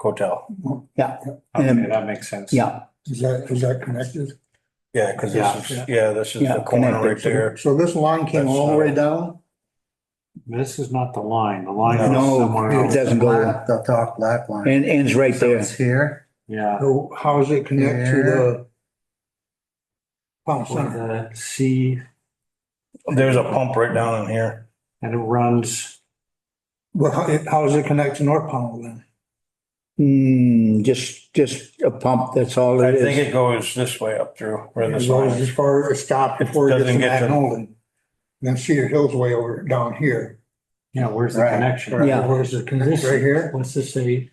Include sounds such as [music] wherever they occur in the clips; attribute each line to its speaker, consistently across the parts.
Speaker 1: hotel.
Speaker 2: yeah,
Speaker 3: Okay,
Speaker 2: Um,
Speaker 3: that makes sense.
Speaker 2: yeah,
Speaker 4: Is that, is that connected?
Speaker 1: Yeah, because this
Speaker 3: Yeah.
Speaker 1: is, yeah, this is
Speaker 2: Yeah,
Speaker 1: the corner right
Speaker 2: connected.
Speaker 1: there.
Speaker 2: so this line came all the way down?
Speaker 3: This is not the line, the line is somewhere
Speaker 2: No, it
Speaker 3: else.
Speaker 2: doesn't go,
Speaker 5: Black, The dark black line.
Speaker 2: and ends right
Speaker 5: So
Speaker 2: there.
Speaker 5: it's here.
Speaker 3: Yeah.
Speaker 4: So how's it connect to the pump
Speaker 3: With
Speaker 4: center?
Speaker 3: the C
Speaker 1: There's a pump right down in here.
Speaker 3: and it runs,
Speaker 4: Well, how, how's it connect to North Pownell then?
Speaker 2: Hmm, just, just a pump, that's all
Speaker 1: I
Speaker 2: it
Speaker 1: think
Speaker 2: is.
Speaker 1: it goes this way up through where
Speaker 4: It
Speaker 1: this
Speaker 4: goes
Speaker 1: line
Speaker 4: as
Speaker 1: is.
Speaker 4: far as stop before it gets
Speaker 1: Doesn't
Speaker 4: to
Speaker 1: get to-
Speaker 4: Magnolia. Then Cedar Hill's way over down here.
Speaker 3: yeah, where's the
Speaker 5: Right,
Speaker 3: connection?
Speaker 4: Right,
Speaker 2: Yeah.
Speaker 4: Where's the connect, right here,
Speaker 3: What's this say?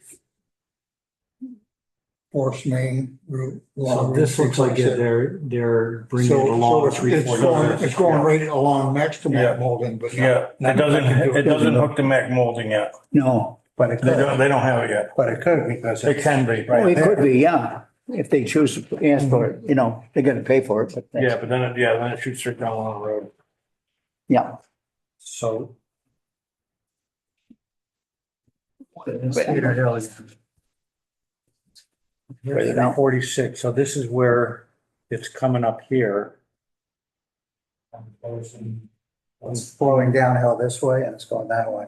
Speaker 4: Forest Main Route.
Speaker 3: So
Speaker 4: along Route
Speaker 3: this looks like
Speaker 4: 647.
Speaker 3: they're, they're bringing
Speaker 4: So-
Speaker 3: it
Speaker 4: so
Speaker 3: along
Speaker 4: it's-
Speaker 3: three,
Speaker 4: it's
Speaker 3: four
Speaker 4: going-
Speaker 3: numbers.
Speaker 4: It's going
Speaker 1: Yeah.
Speaker 4: right along next to
Speaker 1: Yeah.
Speaker 4: Magnolia, but. not-
Speaker 1: Yeah, it doesn't, it doesn't hook the Mac molding yet.
Speaker 2: No,
Speaker 5: But it
Speaker 1: They
Speaker 5: could,
Speaker 1: don't, they don't have it yet.
Speaker 5: but it could because
Speaker 1: It
Speaker 5: it's
Speaker 1: can be,
Speaker 2: Oh,
Speaker 1: right?
Speaker 2: it could be, yeah, if they choose to ask for it, you know, they're gonna pay for it, but. that's-
Speaker 1: Yeah, but then, it yeah, then it shoots right down along the road.
Speaker 2: Yeah,
Speaker 3: So.
Speaker 2: Cedar
Speaker 3: Hill.
Speaker 2: Right now.
Speaker 3: Forty-six, so this is where it's coming up here.
Speaker 5: it's flowing downhill this way and it's going that way.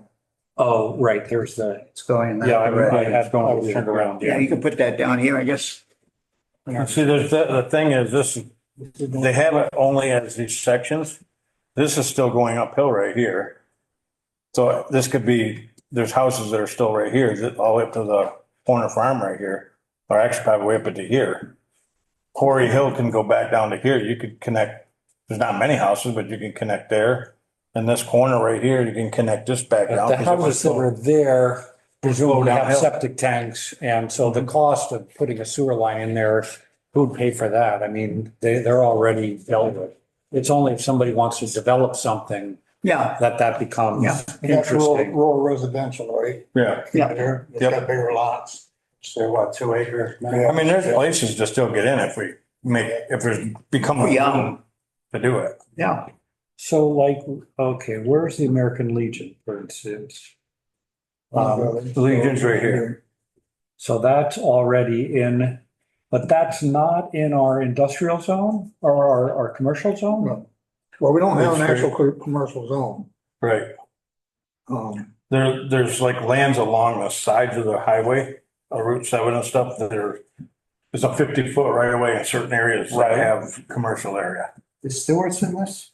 Speaker 3: Oh, right, there's the,
Speaker 5: It's going that
Speaker 3: yeah, I I
Speaker 5: way.
Speaker 3: had, I was turned around,
Speaker 2: yeah,
Speaker 3: yeah.
Speaker 2: you can put that down here, I guess.
Speaker 1: And see, there's, the, the thing is, this, they have it only as these sections. This is still going uphill right here. So this could be, there's houses that are still right here, that all the way up to the corner farm right here, or actually probably way up into here. Quarry Hill can go back down to here. You could connect, there's not many houses, but you can connect there. And this corner right here, you can connect this back
Speaker 3: But
Speaker 1: down.
Speaker 3: The
Speaker 1: 'cause it would
Speaker 3: houses that
Speaker 1: go-
Speaker 3: are there presumably have
Speaker 1: downhill.
Speaker 3: septic tanks, and so
Speaker 4: Mm-hmm.
Speaker 3: the cost of putting a sewer line in there, who'd pay for that? I mean, they, they're already dealt with. It's only if somebody wants to develop something
Speaker 2: Yeah,
Speaker 3: that that becomes
Speaker 4: That's rural,
Speaker 3: interesting.
Speaker 4: rural residential, right?
Speaker 1: Yeah,
Speaker 2: Yeah.
Speaker 4: There, It's
Speaker 1: Yep.
Speaker 4: got bigger lots.
Speaker 5: So what, two acres?
Speaker 1: I mean, there's places to still get in if we make, if there's become a
Speaker 2: Yeah.
Speaker 1: room to do it.
Speaker 2: yeah,
Speaker 3: So like, okay, where's the American Legion, for instance? Um,
Speaker 1: The Legion's right here.
Speaker 3: So that's already in, but that's not in our industrial zone or our, our commercial zone?
Speaker 4: No. Well, we don't have an
Speaker 1: That's
Speaker 4: actual co- commercial zone.
Speaker 1: Right.
Speaker 4: Um,
Speaker 1: There, there's like lands along the sides of the highway, uh, Route seven and stuff that are, there's a fifty foot right away in certain areas that have commercial area.
Speaker 5: Is Stewart's in this?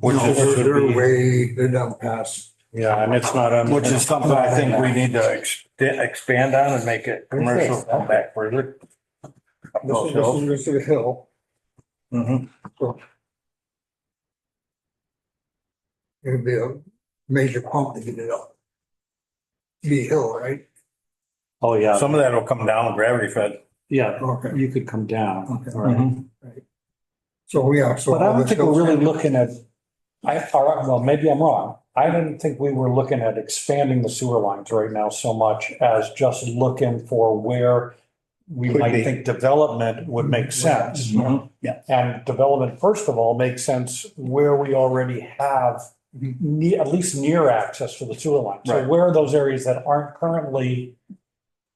Speaker 1: Which
Speaker 4: no,
Speaker 1: is,
Speaker 4: they're-
Speaker 3: would be-
Speaker 4: They're way, they're down past.
Speaker 3: Yeah, and it's not on.
Speaker 1: which is something I think we need to ex- expand on and make it commercial come back further.
Speaker 4: This is, this is, this is a hill.
Speaker 1: Mhm.
Speaker 4: It'd be a major pump to get it up. Be hill, right?
Speaker 3: Oh, yeah.
Speaker 1: Some of that will come down gravity fed.
Speaker 3: Yeah,
Speaker 4: Okay.
Speaker 3: you could come down.
Speaker 4: Okay. Mm-hmm.
Speaker 3: All right.
Speaker 4: So, yeah, so.
Speaker 3: But I
Speaker 4: all
Speaker 3: don't
Speaker 4: this
Speaker 3: think we're
Speaker 4: hill's-
Speaker 3: really looking at, I, all right, well, maybe I'm wrong. I didn't think we were looking at expanding the sewer lines right now so much as just looking for where we
Speaker 2: Could
Speaker 3: might
Speaker 2: be.
Speaker 3: think development would make sense.
Speaker 1: Mhm.
Speaker 3: And development, first of all, makes sense where we already have
Speaker 4: Mhm.
Speaker 3: ne- at least near access to the sewer line. So
Speaker 1: Right.
Speaker 3: where are those areas that aren't currently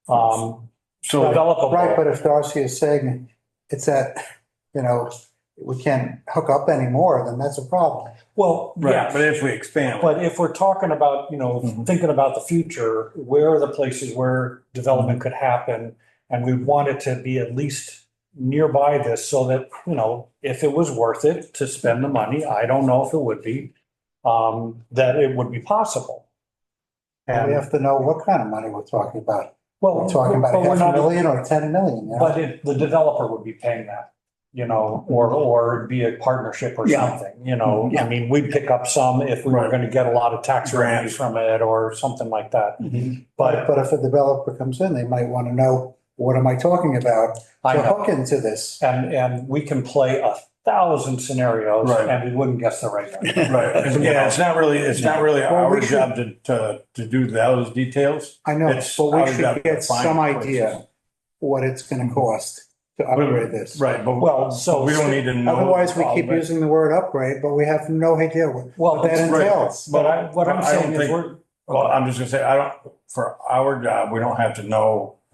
Speaker 3: um,
Speaker 1: So,
Speaker 3: developable?
Speaker 5: Right, but if Darcy is saying it's that, you know, we can't hook up anymore, then that's a problem.
Speaker 3: Well,
Speaker 1: right,
Speaker 3: yeah,
Speaker 1: but if we expand,
Speaker 3: But if we're talking about, you know,
Speaker 5: Mm-hmm.
Speaker 1: Mhm.
Speaker 3: thinking about the future, where are the places where development could happen? And we want it to be at least nearby this so that, you know, if it was worth it to spend the money, I don't know if it would be, um, that it would be possible.
Speaker 5: And we
Speaker 3: And,
Speaker 5: have to know what kind of money we're talking about.
Speaker 3: well,
Speaker 5: We're talking about
Speaker 3: but we're
Speaker 5: half a
Speaker 3: not-
Speaker 5: million or ten million, you know?
Speaker 3: But if the developer would be paying that, you know,
Speaker 5: Mm-hmm.
Speaker 3: or, or it'd be a partnership or
Speaker 2: Yeah.
Speaker 3: something, you know? I
Speaker 2: Yeah.
Speaker 3: mean, we'd pick up some if we were
Speaker 1: Right.
Speaker 3: gonna get a lot of tax
Speaker 1: Grants.
Speaker 3: revenues from it or something like that.
Speaker 2: Mhm.
Speaker 3: But
Speaker 5: But if a developer comes in, they might want to know, what am I talking about?
Speaker 3: I
Speaker 5: To
Speaker 3: know,
Speaker 5: hook into this.
Speaker 3: and, and we can play a thousand scenarios
Speaker 1: Right.
Speaker 3: and we wouldn't guess the right
Speaker 1: [laughs]
Speaker 3: one.
Speaker 5: [laughs]
Speaker 1: right, yeah, it's not really, it's not really
Speaker 5: Well, we
Speaker 1: our
Speaker 5: should-
Speaker 1: job to, to, to do those details.
Speaker 5: I know,
Speaker 1: It's our
Speaker 5: but we
Speaker 1: job to
Speaker 5: should get
Speaker 1: find
Speaker 5: some
Speaker 1: places.
Speaker 5: idea what it's going to cost to upgrade this.
Speaker 1: Right, but
Speaker 3: Well, so-
Speaker 1: we don't need to know.
Speaker 5: Otherwise, we
Speaker 1: all
Speaker 5: keep
Speaker 1: of it.
Speaker 5: using the word upgrade, but we have no idea what
Speaker 3: Well,
Speaker 5: that
Speaker 3: that's-
Speaker 1: right.
Speaker 5: entails.
Speaker 3: but I, what I'm
Speaker 1: But I don't
Speaker 3: saying is
Speaker 1: think-
Speaker 3: we're,
Speaker 1: Well, I'm just gonna say, I don't, for our job, we don't have to know